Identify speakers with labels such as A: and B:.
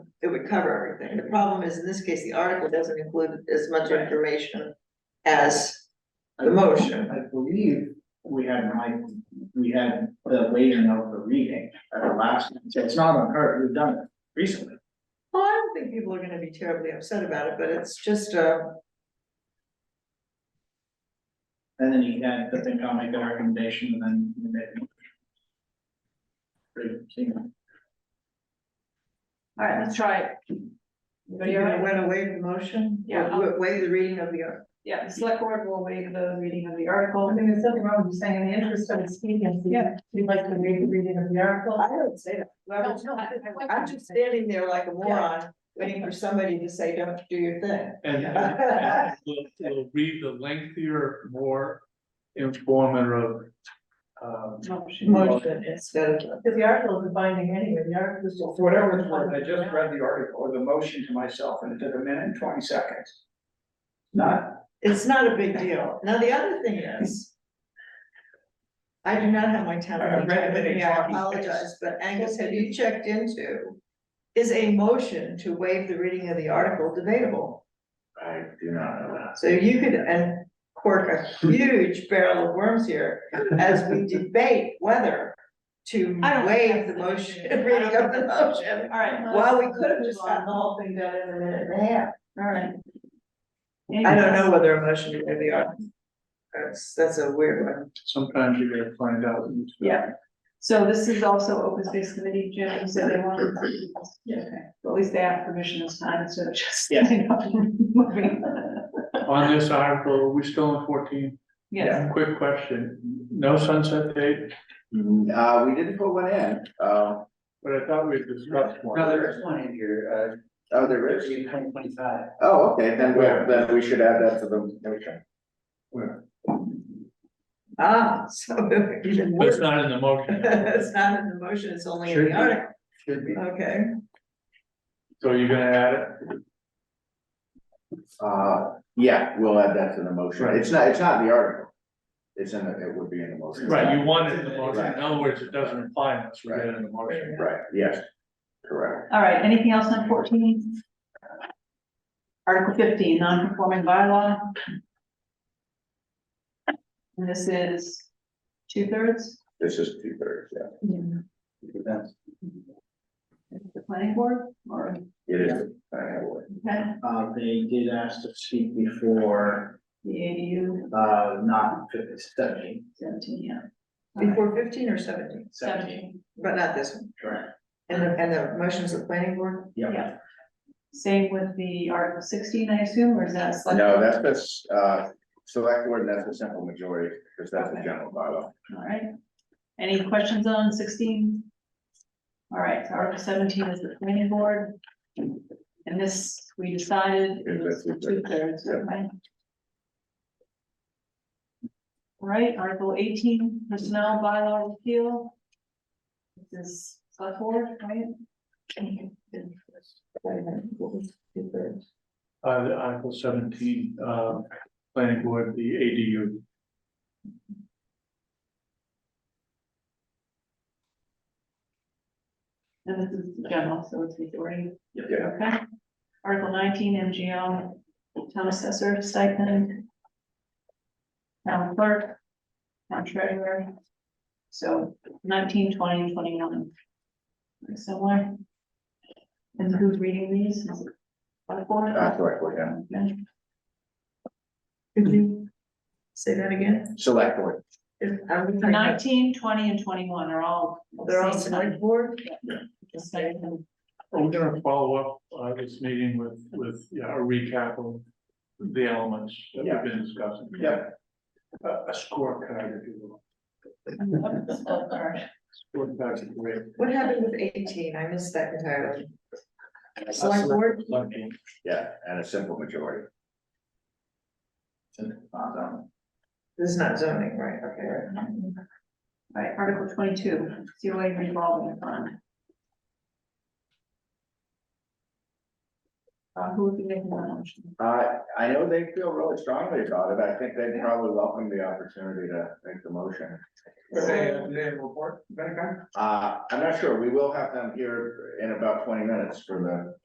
A: it would cover everything. The problem is, in this case, the article doesn't include as much information as the motion.
B: I believe we had my, we had the waiting of the reading at the last, so it's not on her, we've done it recently.
A: Well, I don't think people are gonna be terribly upset about it, but it's just, uh,
B: And then he had, the thing, I'll make the recommendation and then we made. it. Pretty clean.
C: All right, let's try it. Anybody all
A: you're gonna
C: right?
A: win away from the motion?
C: Yeah.
A: Wa- Waive the reading of the article.
C: Yeah, the select board will waive the reading of the article.
D: I think there's something wrong with saying in the interest of expediency,
C: Yeah.
D: we'd like to read the reading of the article.
A: I don't say that. Well,
D: No, no, I- I-
A: I'm just standing there like a moron, waiting for somebody to say, don't do your thing.
E: And, and we'll, we'll read the lengthier, more informative, um,
A: Motion instead of.
D: Because the article is binding anyway, the article is
B: So
D: just.
B: for whatever it's worth, I just read the article or the motion to myself and it took a minute and twenty seconds. Not,
A: It's not a big deal. Now, the other thing is. I do not have my town
B: I
A: meeting
B: read
A: with
B: it in
A: me, I
B: talking
A: apologize, but Angus, have you checked into? Is a motion to waive the reading of the article debatable?
F: I do not know that.
A: So you could and cork a huge barrel of worms here as we debate whether. To
C: I don't think
A: waive the
C: that's the
A: motion,
C: issue.
A: reading of the motion,
C: All right,
A: while we could have just gotten the whole thing done in a minute and a half.
C: all right.
A: I don't know whether a motion to waive the article. That's, that's a weird one.
E: sometimes you gotta find out. who's-
C: Yeah. So this is also open space committee, Jim, you said they wanted. Yeah. Okay, well, at least they have permission this time, instead of just.
B: Yeah.
E: On this article, are we still in fourteen?
C: Yes,
E: Quick question, no sunset date,
F: Uh, we didn't put one in, uh,
E: but I thought we discussed one.
G: No, there is one in here,
F: oh, there
G: uh,
F: is,
G: in twenty twenty-five.
F: oh, okay, then we, then we should add that to the motion.
A: Ah, so even
E: But
A: worse.
E: it's not in the motion,
A: It's not in the motion, it's only in
E: Should
A: the
E: be.
A: article,
E: should be,
A: okay.
E: so you're gonna add it?
F: Uh, yeah, we'll add that to the motion, it's not, it's not in the article. It's in, the- it would be in the motion.
E: Right, you want it in the motion,
F: Right.
E: in other words, it doesn't apply unless we get it in the motion.
F: Right, yes, correct.
C: all right, anything else on fourteen? Article fifteen, non-conforming bylaw. And this is two thirds,
F: This is two thirds, yeah,
C: the planning board, or,
F: it is. I have one.
C: okay,
B: uh, they did ask to speak before,
C: the ADU
B: uh, not fifty, seventy,
C: seventeen, yeah. All right.
A: Before fifteen or seventeen,
B: seventy,
A: but not this one,
B: correct?
A: and the, and the motions of planning board,
C: Yeah. Same with the Article sixteen, I assume, or is that? a select-
F: No, that's, that's, uh, select board, that's a simple majority, because that's a general bylaw.
C: All right. Any questions on sixteen? All right, so Article seventeen is the planning board. And this, we decided it was
F: Yes, that's
C: two thirds,
F: Yeah.
C: right? All right, Article eighteen, personnel bylaw repeal. This is select board, right?
E: Uh, the Article seventeen, uh, planning board, the ADU.
C: And this is general, so it's majority.
F: Yeah.
C: Okay. Article nineteen, MGL, town assessor stipend. Town clerk. Town treasurer. So nineteen, twenty, and twenty-one. Pretty Similar. And who's reading these? Is it select board?
F: Uh, select board, yeah,
C: Okay.
A: could you say that again?
F: select board,
A: If- I'm trying to-
C: Nineteen, twenty, and twenty-one are all.
A: They're all
C: same time.
A: select board,
C: Just stipend.
E: We're gonna follow up, uh, this meeting with, with, yeah, a recap of the elements that we've been discussing.
F: yeah,
E: A, a scorecard, if you
C: All right.
E: will, scorecard's great.
A: what happened with eighteen, I missed that entirely. Select board,
E: Lucky.
F: yeah, and a simple majority.
B: Not done.
A: this is not zoning, right, okay, right.
C: Right, Article twenty-two, COA revolving fund. Uh, who would be making that motion?
F: Uh, I know they feel really strongly about it, I think they'd probably welcome the opportunity to make the motion.
B: Did they, did they report, Benny Gunn?
F: Uh, I'm not sure, we will have them here in about twenty minutes for the